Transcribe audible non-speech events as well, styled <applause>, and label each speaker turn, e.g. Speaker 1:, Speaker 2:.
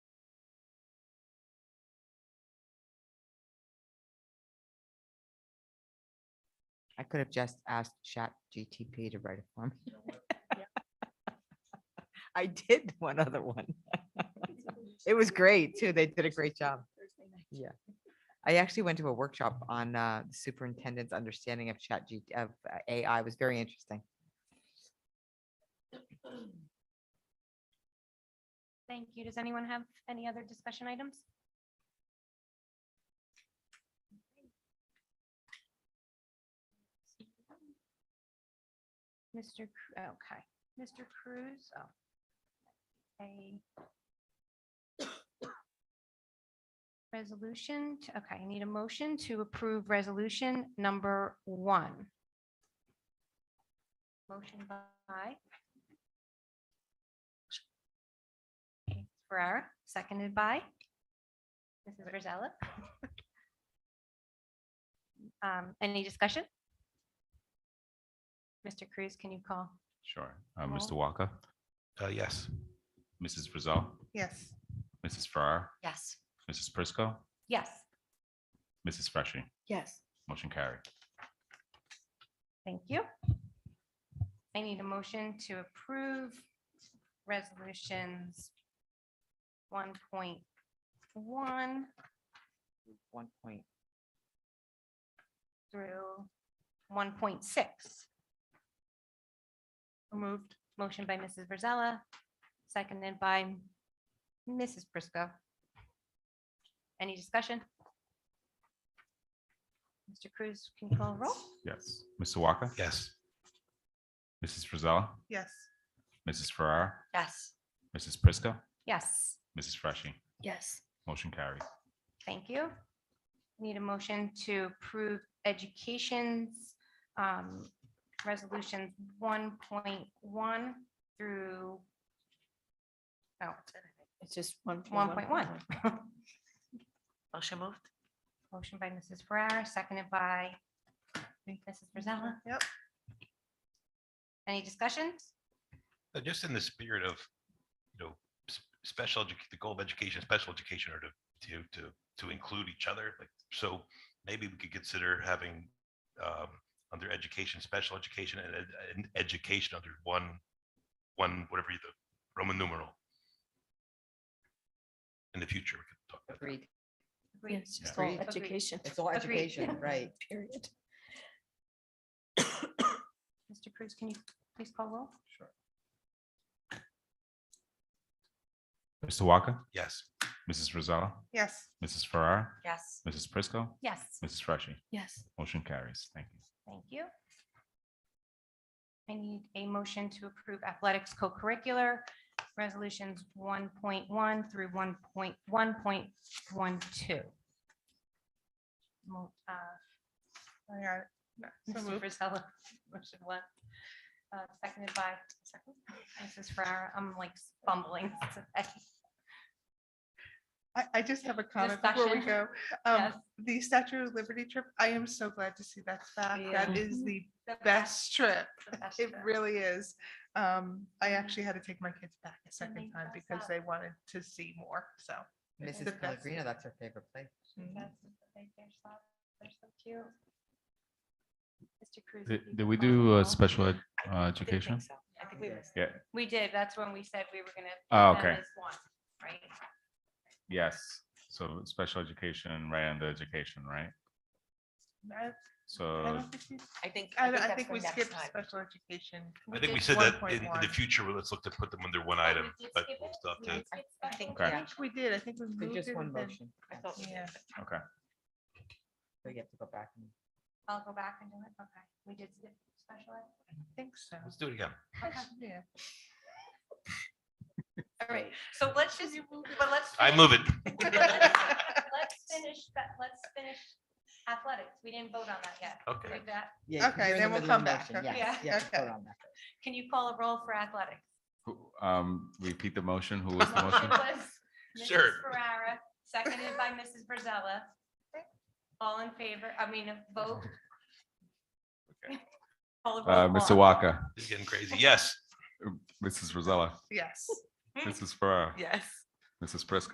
Speaker 1: I could have just asked Chat GTP to write it for me. <laughs> I did one other one. <laughs> It was
Speaker 2: <laughs>
Speaker 1: great too. They did a great job. Yeah. I actually went to a workshop on uh, the superintendent's understanding of Chat G, of uh, AI. It was very interesting.
Speaker 3: Thank you. Does anyone have any other discussion items? Mr. Cru- Okay, Mr. Cruz, oh. A resolution, to- okay, I need a motion to approve resolution number one. Motion by Ferrara, seconded by Mrs. Rosella. Um, Any discussion? Mr. Cruz, can you call?
Speaker 4: Sure. Uh,
Speaker 3: Roll.
Speaker 4: Mr. Walker,
Speaker 5: Uh, yes.
Speaker 4: Mrs. Frizell,
Speaker 6: Yes.
Speaker 4: Mrs. Farrar,
Speaker 6: Yes.
Speaker 4: Mrs. Prisco,
Speaker 3: Yes,
Speaker 4: Mrs. Freshy.
Speaker 6: Yes.
Speaker 4: Motion carried.
Speaker 3: thank you. I need a motion to approve resolutions 1.1,
Speaker 1: One point.
Speaker 3: through one point six. Moved. Motion by Mrs. Virzella, seconded by Mrs. Briscoe. Any discussion? Mr. Cruz, can you call a roll?
Speaker 4: Yes. Mr. Walker.
Speaker 5: Yes.
Speaker 4: Mrs. Frizell,
Speaker 6: Yes.
Speaker 4: Mrs. Farrar,
Speaker 6: Yes.
Speaker 4: Mrs. Prisco,
Speaker 3: Yes,
Speaker 4: Mrs. Freshy.
Speaker 6: Yes.
Speaker 4: Motion carried.
Speaker 3: thank you. Need a motion to approve education's um, resolutions one point one through oh,
Speaker 6: It's just one.
Speaker 3: one point one.
Speaker 6: Motion moved.
Speaker 3: Motion by Mrs. Ferrara, seconded by Mrs. Frizella.
Speaker 6: Yep.
Speaker 3: Any discussions?
Speaker 5: Uh, Just in the spirit of, you know, s- special, edu- the goal of education, special education are to, to, to, to include each other. Like, so maybe we could consider having, um, under education, special education and, ed- and education under one, one, whatever the Roman numeral. In the future, we could talk about that.
Speaker 1: Agreed.
Speaker 3: Agreed.
Speaker 6: It's
Speaker 5: just
Speaker 6: just
Speaker 1: all
Speaker 6: all
Speaker 1: Agreed.
Speaker 6: education.
Speaker 1: It's all
Speaker 3: Agreed.
Speaker 2: <laughs>
Speaker 1: education, right?
Speaker 6: Period.
Speaker 3: Mr. Cruz, can you please call roll?
Speaker 4: Mr. Walker,
Speaker 5: Yes.
Speaker 4: Mrs. Frizell,
Speaker 6: Yes.
Speaker 4: Mrs. Farrar,
Speaker 6: Yes.
Speaker 4: Mrs. Prisco,
Speaker 3: Yes,
Speaker 4: Mrs. Freshy.
Speaker 6: Yes.
Speaker 4: Motion carries. Thank you.
Speaker 3: thank you. I need a motion to approve athletics co-curricular resolutions one point one through one point one point one two. uh,
Speaker 2: Oh,
Speaker 3: Mr. <laughs> Frizella, motion one, uh, seconded by Mrs. Ferrara. I'm like fumbling. today.
Speaker 2: I, I just have a comment before we
Speaker 3: Discussion.
Speaker 2: go. Um,
Speaker 3: Yes.
Speaker 2: the Statue of Liberty trip, I am so glad to see that's back. That
Speaker 3: Yeah.
Speaker 6: Mm-hmm.
Speaker 2: is the
Speaker 3: The
Speaker 2: best trip.
Speaker 3: the best
Speaker 2: It
Speaker 3: trip.
Speaker 2: really is. Um, I
Speaker 6: Mm-hmm.
Speaker 2: actually had to take my kids back a
Speaker 3: they
Speaker 2: second time
Speaker 3: dress
Speaker 2: because
Speaker 3: up.
Speaker 2: they wanted to see more, so. it's the
Speaker 1: Mrs.
Speaker 2: best.
Speaker 1: Pellegrino, that's her favorite place.
Speaker 2: Mhm.
Speaker 3: That's They're so they're so cute. Mr. Cruz.
Speaker 4: Did,
Speaker 3: if you
Speaker 4: did we
Speaker 3: could call
Speaker 4: do
Speaker 3: the
Speaker 4: uh,
Speaker 3: roll.
Speaker 4: special ed, uh, education?
Speaker 6: I think we missed.
Speaker 4: Yeah.
Speaker 3: We did. That's when we said we were gonna.
Speaker 4: Oh,
Speaker 3: put them
Speaker 4: okay.
Speaker 3: as one, Right?
Speaker 4: Yes. So special education, right under education, right?
Speaker 2: I- I
Speaker 4: So
Speaker 2: don't think we-
Speaker 6: I think.
Speaker 2: I, I think
Speaker 6: for
Speaker 2: we
Speaker 6: next
Speaker 2: skipped
Speaker 6: time.
Speaker 2: special education.
Speaker 5: I think we
Speaker 2: did
Speaker 5: said that in, in the
Speaker 2: 1.1.
Speaker 5: future, well, let's look to put them under one
Speaker 3: Oh, we
Speaker 5: item,
Speaker 3: did
Speaker 5: but
Speaker 3: skip
Speaker 5: we'll
Speaker 3: it?
Speaker 5: still have
Speaker 3: We
Speaker 5: to-
Speaker 3: did skip
Speaker 6: I think,
Speaker 4: Okay.
Speaker 2: I
Speaker 6: yeah.
Speaker 2: think we did. I think we
Speaker 1: There's
Speaker 2: moved it.
Speaker 1: just one
Speaker 2: and then-
Speaker 1: motion.
Speaker 6: I thought we did.
Speaker 2: Yeah.
Speaker 4: okay.
Speaker 1: So you have to go back and.
Speaker 3: I'll go back and do it. Okay. We did skip special ed.
Speaker 2: I think so.
Speaker 5: Let's do it again.
Speaker 3: Okay.
Speaker 2: Yeah.
Speaker 3: All right. So let's just, but let's.
Speaker 5: I
Speaker 3: finish-
Speaker 5: move it. <laughs>
Speaker 3: Let's finish, that. let's finish athletics. We didn't vote on that yet.
Speaker 5: Okay.
Speaker 3: Like that.
Speaker 1: Yeah,
Speaker 2: Okay,
Speaker 1: you're in the
Speaker 2: then we'll
Speaker 1: middle of
Speaker 2: come
Speaker 1: a
Speaker 2: back.
Speaker 1: motion,
Speaker 2: Okay.
Speaker 1: yes,
Speaker 2: Yeah,
Speaker 1: yes,
Speaker 2: <laughs> okay.
Speaker 1: vote on that.
Speaker 3: Can you call a roll for athletics?
Speaker 4: Who- Um, repeat the motion. Who was the
Speaker 3: Motion <laughs>
Speaker 4: motion? Uh,
Speaker 3: was
Speaker 5: Sure.
Speaker 3: Mrs. Ferrara, seconded by Mrs. Brazella. All in favor, I mean, a vote. Call a
Speaker 4: Uh,
Speaker 3: roll
Speaker 4: Mr.
Speaker 3: call.
Speaker 4: Walker,
Speaker 5: This is getting crazy. Yes.
Speaker 4: Mrs. Rosella,
Speaker 2: Yes.
Speaker 4: Mrs. Farrar,
Speaker 6: Yes.
Speaker 4: Mrs. Prisco.